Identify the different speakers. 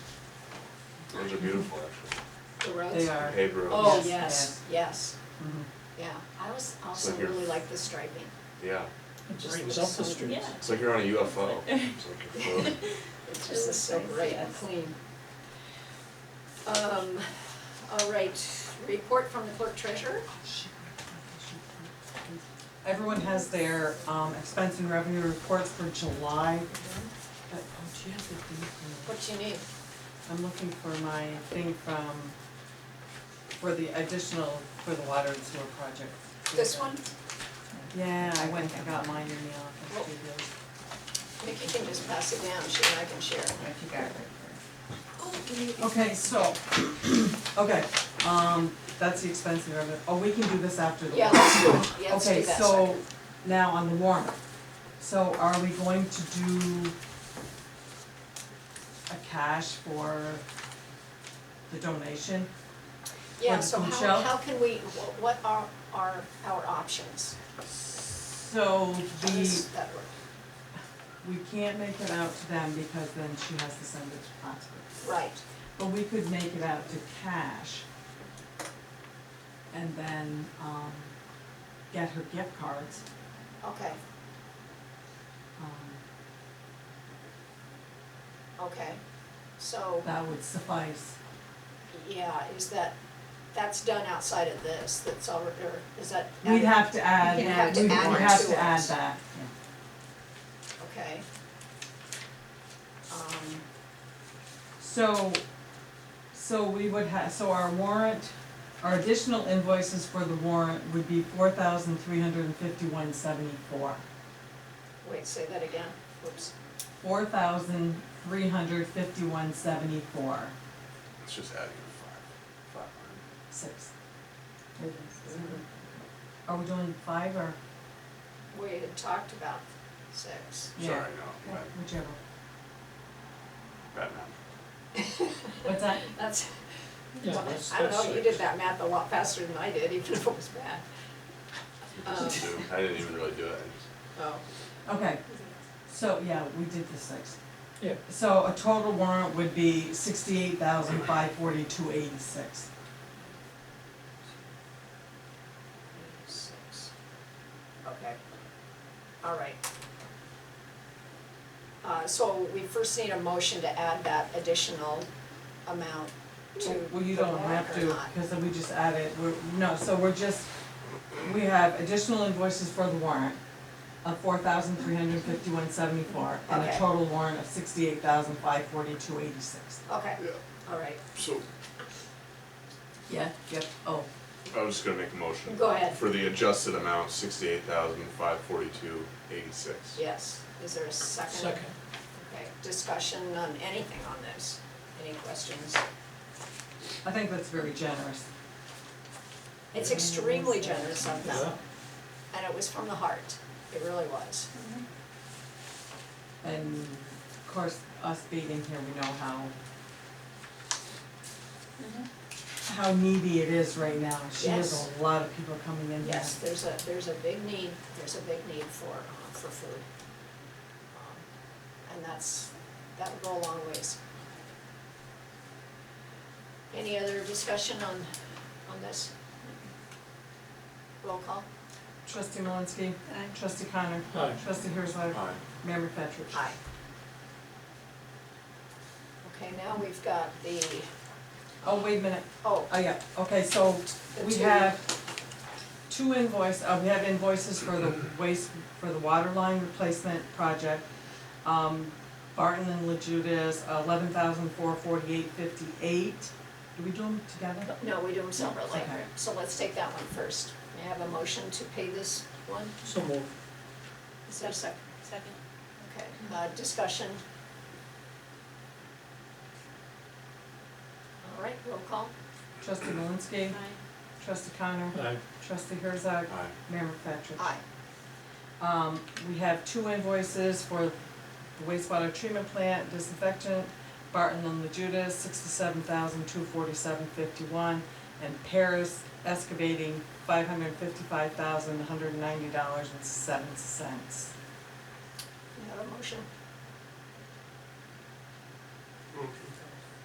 Speaker 1: Those are beautiful, actually.
Speaker 2: The roads?
Speaker 3: They are.
Speaker 1: Paved roads.
Speaker 2: Oh,
Speaker 3: Yes.
Speaker 2: yes, yes,
Speaker 3: Mhm.
Speaker 2: yeah. I was also
Speaker 1: Like your-
Speaker 2: really like the striping.
Speaker 1: Yeah,
Speaker 4: It just
Speaker 2: Right,
Speaker 4: looks
Speaker 2: so-
Speaker 4: so,
Speaker 2: yeah.
Speaker 4: yeah.
Speaker 1: it's like you're on a UFO. It's like you're floating.
Speaker 2: It just
Speaker 4: It
Speaker 2: is
Speaker 4: was
Speaker 2: so
Speaker 4: nice,
Speaker 2: bright and
Speaker 4: yes.
Speaker 2: clean. Um, all right, report from the clerk treasurer?
Speaker 3: Everyone has their um expense and revenue reports for July. But, oh, do you have the thing from-
Speaker 2: What you need?
Speaker 3: I'm looking for my thing from, for the additional, for the water and sewer project.
Speaker 2: This one?
Speaker 3: Yeah, I went and got mine in the office, too, really.
Speaker 2: Nikki can just pass it down, she and I can share.
Speaker 4: If you got it right
Speaker 2: Oh, give me-
Speaker 3: Okay, so, okay, um, that's the expense and revenue, oh, we can do this after the.
Speaker 2: Yeah,
Speaker 3: warrant.
Speaker 2: let's do it, yeah, let's do that
Speaker 3: Okay, so,
Speaker 2: second.
Speaker 3: now on the warrant, so are we going to do a cash for the donation?
Speaker 2: Yeah,
Speaker 3: for
Speaker 2: so how,
Speaker 3: um, Michelle?
Speaker 2: how can we, wh- what are, are our options? How
Speaker 3: So the,
Speaker 2: does that work?
Speaker 3: we can't make it out to them because then she has to send it to Oxford.
Speaker 2: Right,
Speaker 3: But we could make it out to cash. And then, um, get her gift cards,
Speaker 2: okay,
Speaker 3: um,
Speaker 2: okay. So,
Speaker 3: that would suffice.
Speaker 2: yeah, is that, that's done outside of this, that's already, or is that?
Speaker 3: We'd have to add,
Speaker 4: You
Speaker 3: we'd
Speaker 4: can add it
Speaker 3: we'd
Speaker 4: to it.
Speaker 3: have to add that,
Speaker 2: Okay. Um,
Speaker 3: so, so we would have, so our warrant, our additional invoices for the warrant would be four thousand three hundred and fifty-one seventy-four.
Speaker 2: wait, say that again, whoops.
Speaker 3: Four thousand three hundred fifty-one seventy-four,
Speaker 1: It's just adding a five, five
Speaker 3: six.
Speaker 4: there. It is.
Speaker 3: Are we doing five or,
Speaker 2: We had talked about six.
Speaker 1: line.
Speaker 3: Yeah.
Speaker 1: Sorry, no, bad,
Speaker 3: whichever,
Speaker 1: bad math.
Speaker 3: what's that?
Speaker 2: That's,
Speaker 4: Yeah,
Speaker 2: I don't know, you did that math a lot faster than I did, even if it was bad. Um,
Speaker 1: Just do. I didn't even really do it, I
Speaker 2: oh,
Speaker 3: Okay, so, yeah, we did the six.
Speaker 4: Yeah.
Speaker 3: So a total warrant would be sixty-eight thousand five forty-two eighty-six.
Speaker 2: six. Okay, all right. Uh, so we first need a motion to add that additional amount to the
Speaker 3: Well, you don't
Speaker 2: warrant
Speaker 3: have
Speaker 2: or
Speaker 3: to,
Speaker 2: not.
Speaker 3: because then we just add it, we're, no, so we're just, we have additional invoices for the warrant of four thousand three hundred fifty-one seventy-four, and a
Speaker 2: Okay.
Speaker 3: total warrant of sixty-eight thousand five forty-two eighty-six.
Speaker 2: Okay,
Speaker 1: just. Yeah,
Speaker 2: all right,
Speaker 1: so.
Speaker 3: Yeah, yep, oh,
Speaker 1: I was just gonna make a motion.
Speaker 2: Go ahead.
Speaker 1: For the adjusted amount, sixty-eight thousand, five forty-two, eighty-six.
Speaker 2: yes, is there a second?
Speaker 4: Second.
Speaker 2: Okay, discussion on anything on this, any questions?
Speaker 3: I think that's very generous.
Speaker 2: It's extremely generous of them,
Speaker 4: Yeah.
Speaker 2: and it was from the heart, it really was.
Speaker 3: And of course, us being here, we know how how needy it is right now. She has
Speaker 2: Mm-hmm. Yes.
Speaker 3: a lot of people coming in.
Speaker 2: Yes, there's a, there's a big need, there's a big need for, uh, for food. Um, And that's, that would go a long ways. Any other discussion on, on this? Roll call?
Speaker 3: Trustee Malinsky. Trustee Connor.
Speaker 4: Aye.
Speaker 3: Trustee Herzog.
Speaker 1: Aye.
Speaker 3: Mayor McFetrich.
Speaker 2: Aye. Okay, now we've got the,
Speaker 3: Oh, wait a minute.
Speaker 2: oh,
Speaker 3: Oh, yeah. Okay, so
Speaker 2: The
Speaker 3: we
Speaker 2: two-
Speaker 3: have two invoice, uh, we have invoices for the waste, for the water line replacement project. Um, Barton and La Judas, eleven thousand four forty-eight fifty-eight. Do we do them together?
Speaker 2: no, we do them separately.
Speaker 3: Okay.
Speaker 2: So let's take that one first. May I have a motion to pay this one?
Speaker 4: So moved.
Speaker 2: Is there a second? Second. Okay, uh, discussion. All right, roll call.
Speaker 3: Trustee Malinsky. Trustee Connor.
Speaker 4: Aye.
Speaker 3: Trustee Herzog.
Speaker 1: Aye.
Speaker 3: Mayor McFetrich.
Speaker 2: Aye.
Speaker 3: Um, we have two invoices for the wastewater treatment plant disinfectant, Barton and La Judas, sixty-seven thousand, two forty-seven, fifty-one, and Paris excavating, five hundred fifty-five thousand, one hundred ninety dollars and seven cents.
Speaker 2: You have a motion?